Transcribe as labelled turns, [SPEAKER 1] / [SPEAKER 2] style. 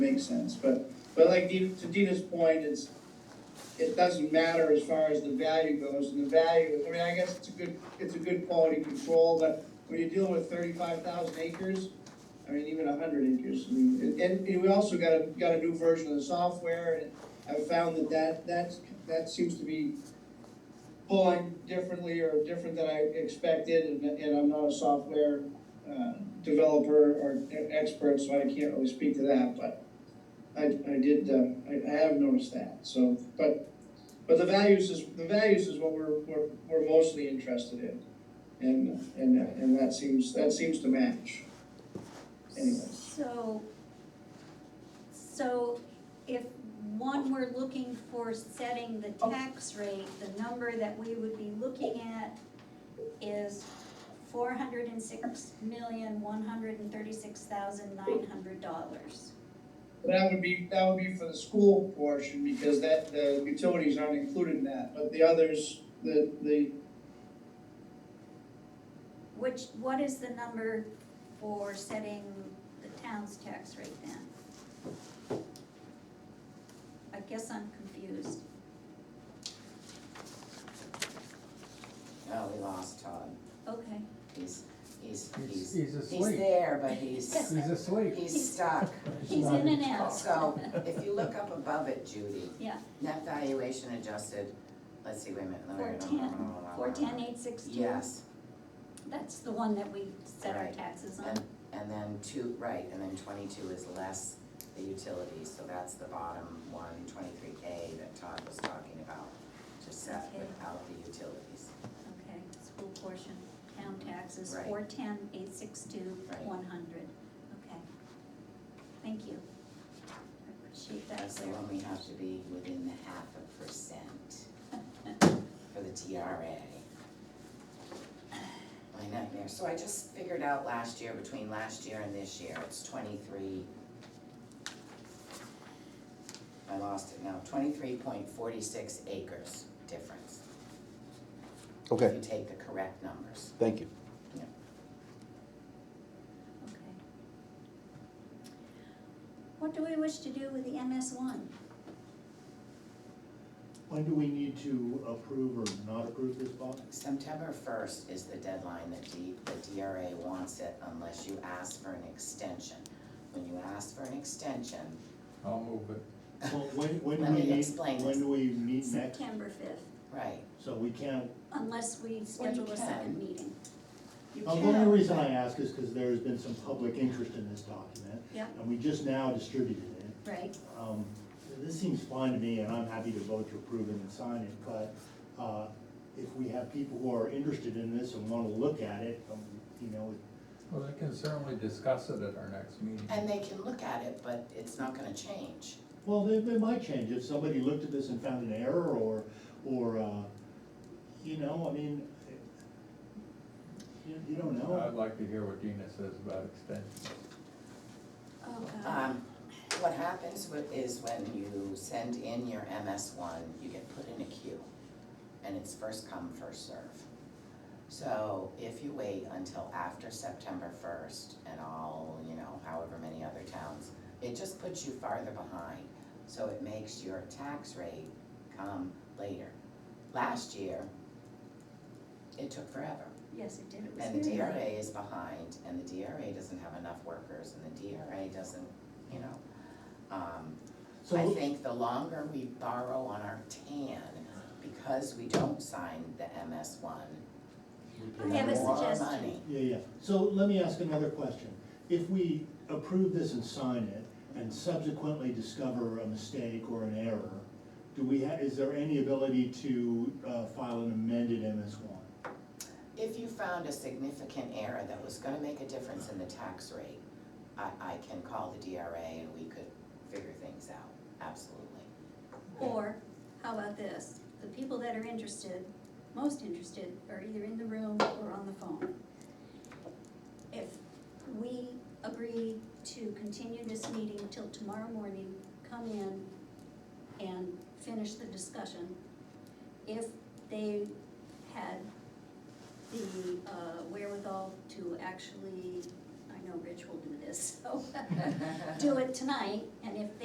[SPEAKER 1] makes sense, but, but like Dina- to Dina's point, it's, it doesn't matter as far as the value goes, and the value, I mean, I guess it's a good, it's a good quality control, but when you're dealing with thirty-five thousand acres, I mean, even hundred acres, I mean, and, and you know, we also got a, got a new version of the software, and I've found that that, that's, that seems to be pulling differently or different than I expected, and, and I'm not a software, uh, developer or e- expert, so I can't really speak to that, but I, I did, uh, I, I have noticed that, so, but, but the values is, the values is what we're, we're, we're mostly interested in. And, and, and that seems, that seems to match. Anyway.
[SPEAKER 2] So, so if one were looking for setting the tax rate, the number that we would be looking at is four hundred and six million, one hundred and thirty-six thousand, nine hundred dollars.
[SPEAKER 1] That would be, that would be for the school portion, because that, the utilities aren't included in that, but the others, the, the,
[SPEAKER 2] Which, what is the number for setting the town's tax rate then? I guess I'm confused.
[SPEAKER 3] Oh, we lost Todd.
[SPEAKER 2] Okay.
[SPEAKER 3] He's, he's,
[SPEAKER 4] He's,
[SPEAKER 3] he's,
[SPEAKER 4] he's
[SPEAKER 3] he's
[SPEAKER 4] asleep.
[SPEAKER 3] there, but he's,
[SPEAKER 4] He's asleep.
[SPEAKER 3] he's stuck.
[SPEAKER 2] He's in and out.
[SPEAKER 3] So if you look up above it, Judy.
[SPEAKER 2] Yeah.
[SPEAKER 3] Net valuation adjusted, let's see, wait a minute. let me-
[SPEAKER 2] Four ten, four ten eight six two.
[SPEAKER 3] Yes,
[SPEAKER 2] That's the one that we set our
[SPEAKER 3] Right.
[SPEAKER 2] taxes on.
[SPEAKER 3] and, and then two, right, and then twenty-two is less the utilities, so that's the bottom one, twenty-three K that Todd was talking about. To set
[SPEAKER 2] Okay.
[SPEAKER 3] without the utilities,
[SPEAKER 2] Okay, school portion, town taxes,
[SPEAKER 3] Right.
[SPEAKER 2] four ten, eight six two,
[SPEAKER 3] Right.
[SPEAKER 2] one hundred, okay. Thank you. I appreciate that,
[SPEAKER 3] that's the
[SPEAKER 2] Sarah.
[SPEAKER 3] one we have to be within the half a percent for the TRA. My nightmare, so I just figured out last year, between last year and this year, it's twenty-three. I lost it now, twenty-three point forty-six acres difference. If
[SPEAKER 5] Okay,
[SPEAKER 3] you take the correct numbers.
[SPEAKER 5] thank you.
[SPEAKER 2] Okay. What do we wish to do with the MS one?
[SPEAKER 6] When do we need to approve or not approve this, Bob?
[SPEAKER 3] September first is the deadline that D, the DRA wants it unless you ask for an extension. When you ask for an extension,
[SPEAKER 4] I'll move it.
[SPEAKER 6] Well, when, when
[SPEAKER 3] Let
[SPEAKER 6] do we
[SPEAKER 3] me
[SPEAKER 6] need,
[SPEAKER 3] explain
[SPEAKER 6] when
[SPEAKER 3] this.
[SPEAKER 6] do we meet next?
[SPEAKER 2] September fifth,
[SPEAKER 3] right,
[SPEAKER 6] So we can't,
[SPEAKER 2] unless we schedule a second
[SPEAKER 3] can.
[SPEAKER 2] meeting.
[SPEAKER 3] you
[SPEAKER 6] Uh,
[SPEAKER 3] can.
[SPEAKER 6] the only reason I ask is because there's been some public interest in this document.
[SPEAKER 2] Yeah.
[SPEAKER 6] And we just now distributed it.
[SPEAKER 2] Right,
[SPEAKER 6] Um, this seems fine to me, and I'm happy to vote to approve it and sign it, but, uh, if we have people who are interested in this and wanna look at it, um, you know,
[SPEAKER 4] Well, they can certainly discuss it at our next meeting.
[SPEAKER 3] And they can look at it, but it's not gonna change.
[SPEAKER 6] Well, they, they might change, if somebody looked at this and found an error, or, or, uh, you know, I mean, you, you don't
[SPEAKER 4] I'd
[SPEAKER 6] know.
[SPEAKER 4] like to hear what Dina says about extensions.
[SPEAKER 2] oh god,
[SPEAKER 3] Um, what happens with, is when you send in your MS one, you get put in a queue, and it's first come, first serve. So if you wait until after September first and all, you know, however many other towns, it just puts you farther behind. So it makes your tax rate come later. Last year, it took forever.
[SPEAKER 2] yes, it did, it was
[SPEAKER 3] And the
[SPEAKER 2] very
[SPEAKER 3] DRA
[SPEAKER 2] late.
[SPEAKER 3] is behind, and the DRA doesn't have enough workers, and the DRA doesn't, you know. um, I
[SPEAKER 6] So,
[SPEAKER 3] think the longer we borrow on our tan, because we don't sign the MS one,
[SPEAKER 2] I have a
[SPEAKER 3] the more
[SPEAKER 2] suggestion.
[SPEAKER 3] money.
[SPEAKER 6] yeah, yeah, so let me ask another question. If we approve this and sign it, and subsequently discover a mistake or an error, do we ha, is there any ability to, uh, file an amended MS one?
[SPEAKER 3] If you found a significant error that was gonna make a difference in the tax rate, I, I can call the DRA and we could figure things out, absolutely.
[SPEAKER 2] Or, how about this, the people that are interested, most interested, are either in the room or on the phone. If we agree to continue this meeting till tomorrow morning, come in and finish the discussion. If they had the uh, wherewithal to actually, I I know Rich will do this, so do it tonight, and if